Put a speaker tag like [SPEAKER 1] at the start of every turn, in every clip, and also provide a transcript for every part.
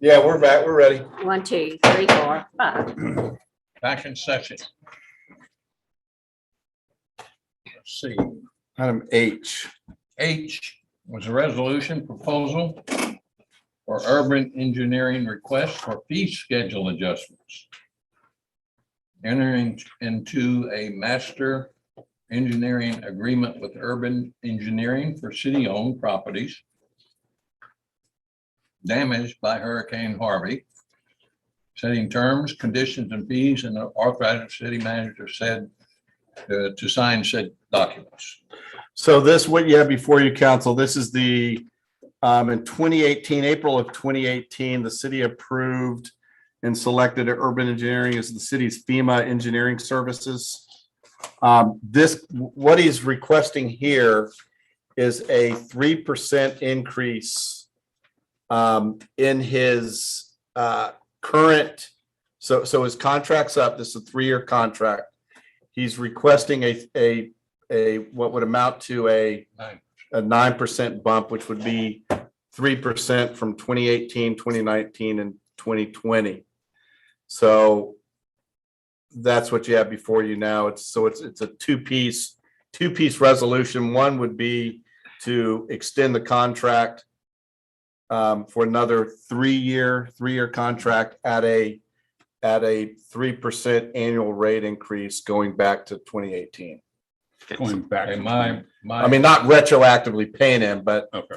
[SPEAKER 1] Yeah, we're back. We're ready.
[SPEAKER 2] One, two, three, four, five.
[SPEAKER 3] back in session. Let's see,
[SPEAKER 4] Item H,
[SPEAKER 3] H was a resolution proposal for urban engineering request for fee schedule adjustments. Entering into a master engineering agreement with urban engineering for city-owned properties damaged by Hurricane Harvey, setting terms, conditions, and fees, and authorizing the city manager said uh, to sign said documents.
[SPEAKER 4] So this, what you have before you, council, this is the, um, in twenty eighteen, April of twenty eighteen, the city approved and selected urban engineering as the city's FEMA engineering services. Um, this, what he's requesting here is a three percent increase um, in his, uh, current, so, so his contract's up, this is a three-year contract. He's requesting a, a a, what would amount to a,
[SPEAKER 3] Nine.
[SPEAKER 4] a nine percent bump, which would be three percent from 2018, 2019, and twenty twenty. So that's what you have before you now. It's, so it's, it's a two-piece, two-piece resolution. One would be to extend the contract um, for another three-year, three-year contract at a, at a three percent annual rate increase going back to twenty eighteen.
[SPEAKER 5] Going back.
[SPEAKER 3] Okay,
[SPEAKER 5] to
[SPEAKER 3] my, my.
[SPEAKER 4] I mean, not retroactively paying him, but
[SPEAKER 5] Okay.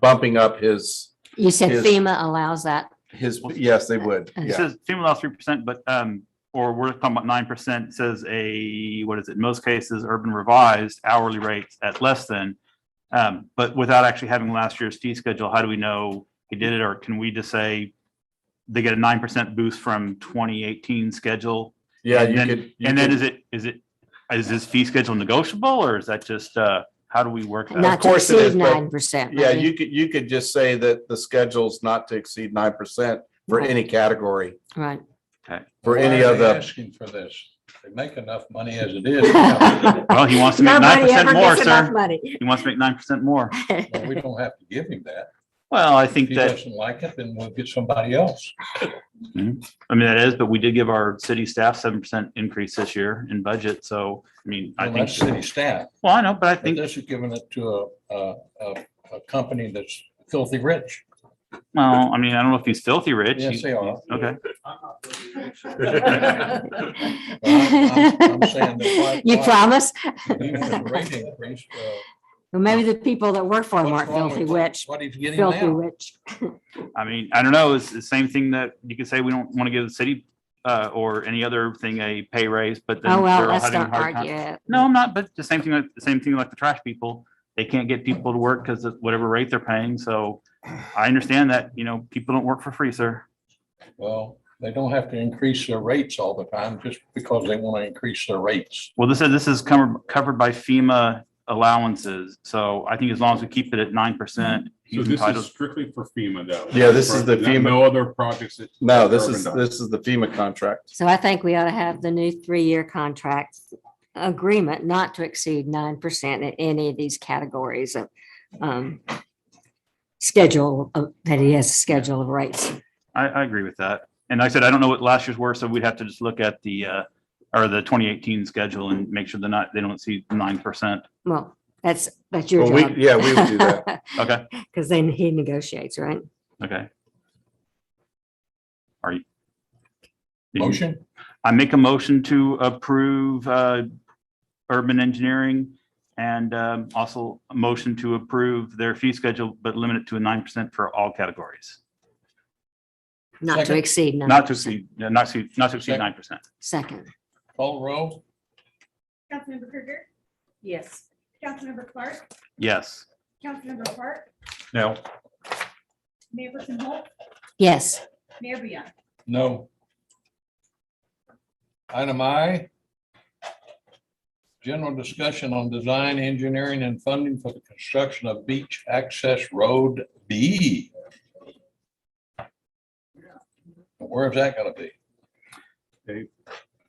[SPEAKER 4] bumping up his,
[SPEAKER 2] You said
[SPEAKER 4] Yes.
[SPEAKER 2] FEMA allows that.
[SPEAKER 4] his, yes, they would.
[SPEAKER 5] It
[SPEAKER 4] Yeah,
[SPEAKER 5] says FEMA allows three percent, but, um, or we're talking about nine percent, says a, what is it, in most cases, urban revised hourly rates at less than. Um, but without actually having last year's fee schedule, how do we know he did it, or can we just say they get a nine percent boost from twenty eighteen schedule?
[SPEAKER 4] yeah,
[SPEAKER 5] and
[SPEAKER 4] you
[SPEAKER 5] then-
[SPEAKER 4] could. you
[SPEAKER 5] And then
[SPEAKER 4] could-
[SPEAKER 5] is it, is it, is this fee schedule negotiable, or is that just, uh, how do we work that?
[SPEAKER 2] Not to
[SPEAKER 4] course it
[SPEAKER 2] exceed
[SPEAKER 4] is, but-
[SPEAKER 2] nine percent.
[SPEAKER 4] Yeah, you could, you could just say that the schedule's not to exceed nine percent for any category,
[SPEAKER 2] Right.
[SPEAKER 4] for
[SPEAKER 3] why
[SPEAKER 4] any
[SPEAKER 3] are
[SPEAKER 4] of
[SPEAKER 3] they
[SPEAKER 4] the,
[SPEAKER 3] Asking for this. They make enough money as it is. Well,
[SPEAKER 5] Well, he wants to make nine
[SPEAKER 2] Nobody ever
[SPEAKER 5] percent more,
[SPEAKER 2] gets enough
[SPEAKER 5] sir.
[SPEAKER 2] money.
[SPEAKER 5] He wants to make nine percent more.
[SPEAKER 3] We don't have to give him that.
[SPEAKER 5] Well, I
[SPEAKER 3] If
[SPEAKER 5] think
[SPEAKER 3] he
[SPEAKER 5] that.
[SPEAKER 3] doesn't like it, then we'll get somebody else.
[SPEAKER 5] I mean, that is, but we did give our city staff seven percent increase this year in budget, so, I mean, I
[SPEAKER 3] Well, that's
[SPEAKER 5] think,
[SPEAKER 3] city staff.
[SPEAKER 5] well, I know, but I
[SPEAKER 3] But
[SPEAKER 5] think,
[SPEAKER 3] this is giving it to a, a, a, a company that's filthy rich.
[SPEAKER 5] well, I mean, I don't know if he's filthy rich.
[SPEAKER 3] Yes,
[SPEAKER 5] He's-
[SPEAKER 3] they are.
[SPEAKER 5] Okay,
[SPEAKER 3] I'm- I'm saying that why-
[SPEAKER 2] You
[SPEAKER 3] why-
[SPEAKER 2] promise?
[SPEAKER 3] Even with the rate increase, uh,
[SPEAKER 2] Well, maybe the people that work for them
[SPEAKER 3] what's
[SPEAKER 2] aren't
[SPEAKER 3] wrong
[SPEAKER 2] filthy
[SPEAKER 3] with
[SPEAKER 2] rich,
[SPEAKER 3] What he's getting
[SPEAKER 2] filthy
[SPEAKER 3] now.
[SPEAKER 2] rich.
[SPEAKER 5] I mean, I don't know, it's the same thing that you could say, we don't want to give the city uh, or any other thing a pay raise, but then
[SPEAKER 2] Oh, well,
[SPEAKER 5] they're all
[SPEAKER 2] let's
[SPEAKER 5] having a
[SPEAKER 2] not
[SPEAKER 5] hard
[SPEAKER 2] argue.
[SPEAKER 5] time.
[SPEAKER 2] it.
[SPEAKER 5] No, I'm not, but the same thing, like- the same thing like the trash people, they can't get people to work because of whatever rate they're paying, so I understand that, you know, people don't work for free, sir.
[SPEAKER 3] Well, they don't have to increase their rates all the time just because they want to increase their rates.
[SPEAKER 5] Well, this is, this is covered, covered by FEMA allowances, so I think as long as we keep it at nine percent,
[SPEAKER 6] So
[SPEAKER 5] he's
[SPEAKER 6] this is
[SPEAKER 5] entitled.
[SPEAKER 6] strictly for FEMA though.
[SPEAKER 4] Yeah, this is the
[SPEAKER 6] No-
[SPEAKER 4] FEMA.
[SPEAKER 6] No other projects. that-
[SPEAKER 4] no, this is,
[SPEAKER 6] Urban.
[SPEAKER 4] this is the FEMA contract.
[SPEAKER 2] So I think we ought to have the new three-year contract agreement not to exceed nine percent in any of these categories of um, schedule, of- that he has a schedule of rates.
[SPEAKER 5] I, I agree with that. And like I said, I don't know what last year's were, so we'd have to just look at the, uh, or the twenty eighteen schedule and make sure they're not, they don't see nine percent.
[SPEAKER 2] Well, that's, that's your
[SPEAKER 4] Well, we,
[SPEAKER 2] job.
[SPEAKER 4] yeah, we would do that.
[SPEAKER 5] Okay,
[SPEAKER 2] Because then he negotiates, right?
[SPEAKER 5] okay. Are you? Did you-
[SPEAKER 3] Motion?
[SPEAKER 5] I make a motion to approve uh, urban engineering and um, also a motion to approve their fee schedule, but limit it to a nine percent for all categories.
[SPEAKER 2] Not to
[SPEAKER 3] Second.
[SPEAKER 2] exceed nine.
[SPEAKER 5] Not to exceed, yeah, not to, not to exceed
[SPEAKER 3] Second.
[SPEAKER 5] nine percent.
[SPEAKER 2] Second,
[SPEAKER 3] Call roll?
[SPEAKER 7] Councilmember Krueger. Yes. Councilmember Clark,
[SPEAKER 5] Yes.
[SPEAKER 7] Councilmember Park,
[SPEAKER 3] No.
[SPEAKER 7] Mayor Person Holt,
[SPEAKER 2] yes.
[SPEAKER 7] Mayor Beyond.
[SPEAKER 3] No. Item I. General discussion on design, engineering, and funding for the construction of beach access road B. Where's that gonna be?
[SPEAKER 6] Okay,